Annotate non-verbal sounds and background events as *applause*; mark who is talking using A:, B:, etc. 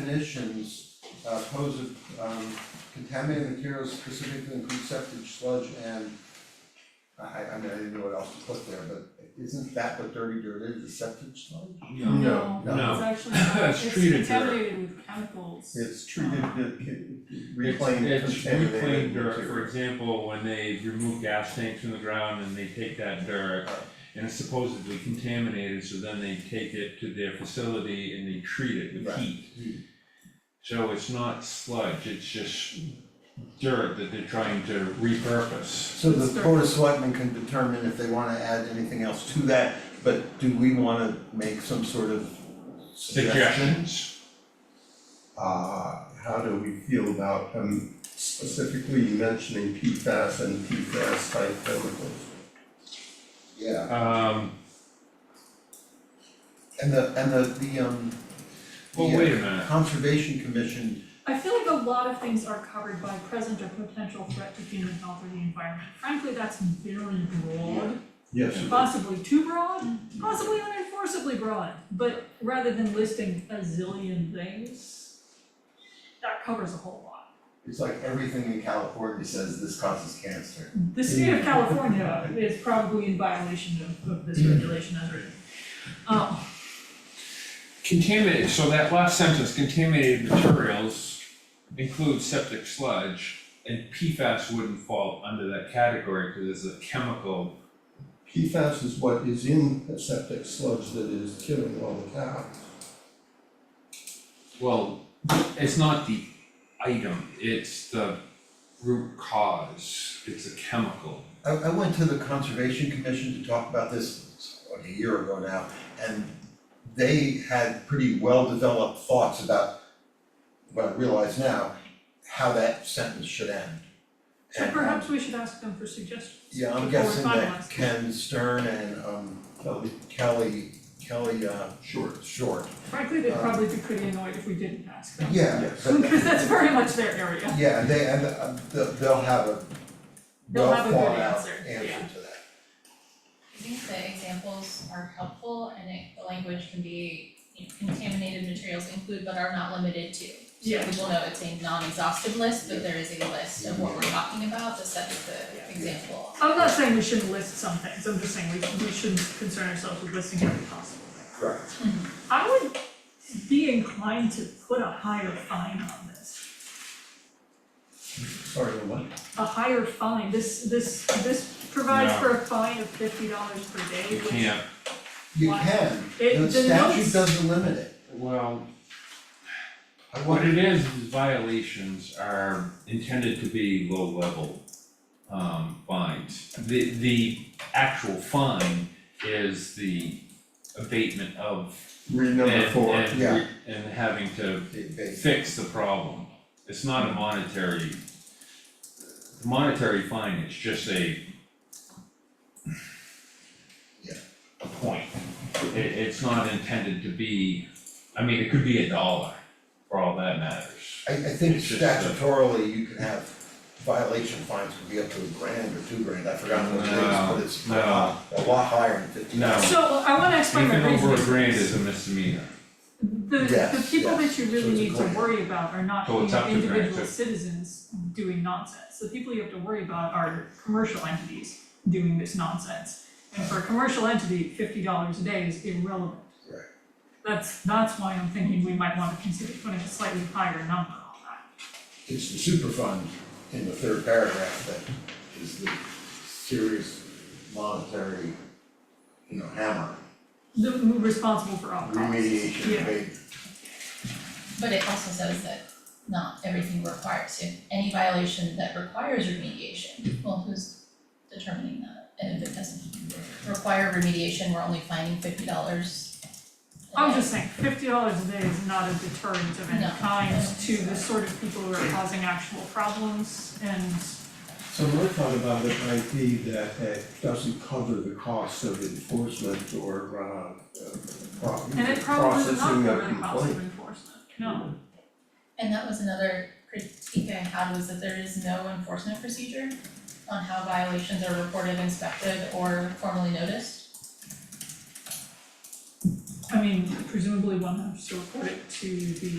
A: definitions, uh, pose of, um, contaminated materials specifically include septic sludge and I, I mean, I didn't know what else to put there, but isn't that what dirty dirt is, the septic sludge?
B: No.
A: no.
C: It's actually,
B: *laughs*
C: not-
B: It's treated
C: it's
B: dirt.
C: contaminated with chemicals.
A: It's treated, it- reclaimed,
B: It's- It's reclaimed
A: contaminated
B: dirt, for
A: material.
B: example, when they remove gas tanks from the ground and they take that dirt and it's supposedly contaminated, so then they take it to their facility and they treat it with
A: Right.
B: heat. So it's not sludge, it's just dirt that they're trying to repurpose.
A: So the board of selectmen can determine if they wanna add anything else to that, but do we wanna make some sort of suggestion?
B: Suggestions?
D: Uh, how do we feel about him specifically mentioning PFAS and PFAS type chemicals?
A: Yeah,
B: Um,
A: and the, and the, the, um,
B: well,
A: Yeah.
B: wait a minute,
A: conservation commission,
C: I feel like a lot of things are covered by present or potential threat to human health or the environment. Frankly, that's very broad,
D: Yes.
C: possibly too broad, possibly unenforceably broad. But rather than listing a zillion things, that covers a whole lot.
A: it's like everything in California says this causes cancer.
C: The state
B: Mm.
C: of California is probably in violation of, of
B: Mm.
C: this regulation as written. Um,
B: contaminated, so that last sentence, contaminated materials include septic sludge, and PFAS wouldn't fall under that category, because it's a chemical.
D: PFAS is what is in the septic sludge that is killing all the cows.
B: Well, it's not the item, it's the root cause, it's a chemical.
A: I, I went to the conservation commission to talk about this like a year ago now, and they had pretty well-developed thoughts about what I realize now, how that sentence should end.
C: so
A: And, um,
C: perhaps we should ask them for suggestions.
A: Yeah, I'm
C: before we
A: guessing that
C: finalize.
A: Ken Stern and, um,
D: Kelly,
A: Kelly, Kelly, uh,
D: sure.
A: Short,
C: Frankly, they'd
A: Uh,
C: probably be pretty annoyed if we didn't ask *laughs* them.
A: yeah, but-
C: Because that's very much their area.
A: Yeah, and they, and uh, they'll, they'll have a
C: They'll have a good
A: well-thought-out
C: answer, yeah.
A: answer to that.
E: I think the examples are helpful and it, the language can be, you know, contaminated materials include but are not limited to.
C: Yeah.
E: So people know it's a non-exhaustive list, but there is a list of what we're talking about that sets
C: Yeah.
E: the example.
C: I'm not saying we shouldn't list some things, I'm just saying we, we shouldn't concern ourselves with listing every possible thing. Mm-hmm.
A: Right.
C: I would be inclined to put a higher fine on this,
D: Sorry, what?
C: a higher fine, this, this, this provides for a fine of fifty dollars per day,
B: You
C: which-
B: can't,
A: You
C: Why?
A: can,
C: It-
A: the
C: the
A: statute
C: notes-
A: doesn't limit it.
B: well,
A: I
B: what
A: wonder,
B: it is, is violations are intended to be low level um fines. The the actual fine is the abatement of
D: Read number
B: and
D: four.
B: and
A: yeah.
B: re- and having to fix the problem. It's not a monetary, the monetary fine, it's just a
A: Yeah.
B: a point. It, it's not intended to be, I mean, it could be a dollar for all that matters.
A: I, I think
B: It's just a-
A: statutorily you can have violation fines could be up to a grand or two grand, I forgot what it
B: No,
A: is, but it's
B: no.
A: uh, a lot higher than fifty.
B: No.
C: So I wanna explain my
B: Anything
C: reasoning.
B: over a grand is a misdemeanor.
C: The, the
A: Yes,
C: people
A: yes.
C: that you
A: So
C: really
A: it's a
C: need to
A: grant.
C: worry about are not
B: Oh, it's
C: the
B: up to grant,
C: individual
B: too.
C: citizens doing nonsense. The people you have to worry about are commercial entities doing this nonsense. And for a commercial entity, fifty dollars a day is irrelevant.
A: Right.
C: That's, that's why I'm thinking we might wanna consider putting a slightly higher number on that.
A: It's the superfund in the third paragraph that is the serious monetary, you know, hammer,
C: The, responsible for all costs.
A: remediation,
C: Yeah.
A: abatement.
E: But it also says that not everything requires, if any violation that requires remediation, well, who's determining that? And if it doesn't require remediation, we're only fining fifty dollars.
C: I'm just saying, fifty dollars a day is not a deterrent of any
E: No.
C: kind to the sort of people who are causing actual problems and
D: So my thought about it might be that it doesn't cover the cost of enforcement or, uh, pro-
C: And it probably does not
D: processing of
C: cover the cost
D: complaint.
C: of enforcement, no.
E: And that was another critique I had was that there is no enforcement procedure on how violations are reported, inspected, or formally noticed.
C: I mean, presumably one has to report it to the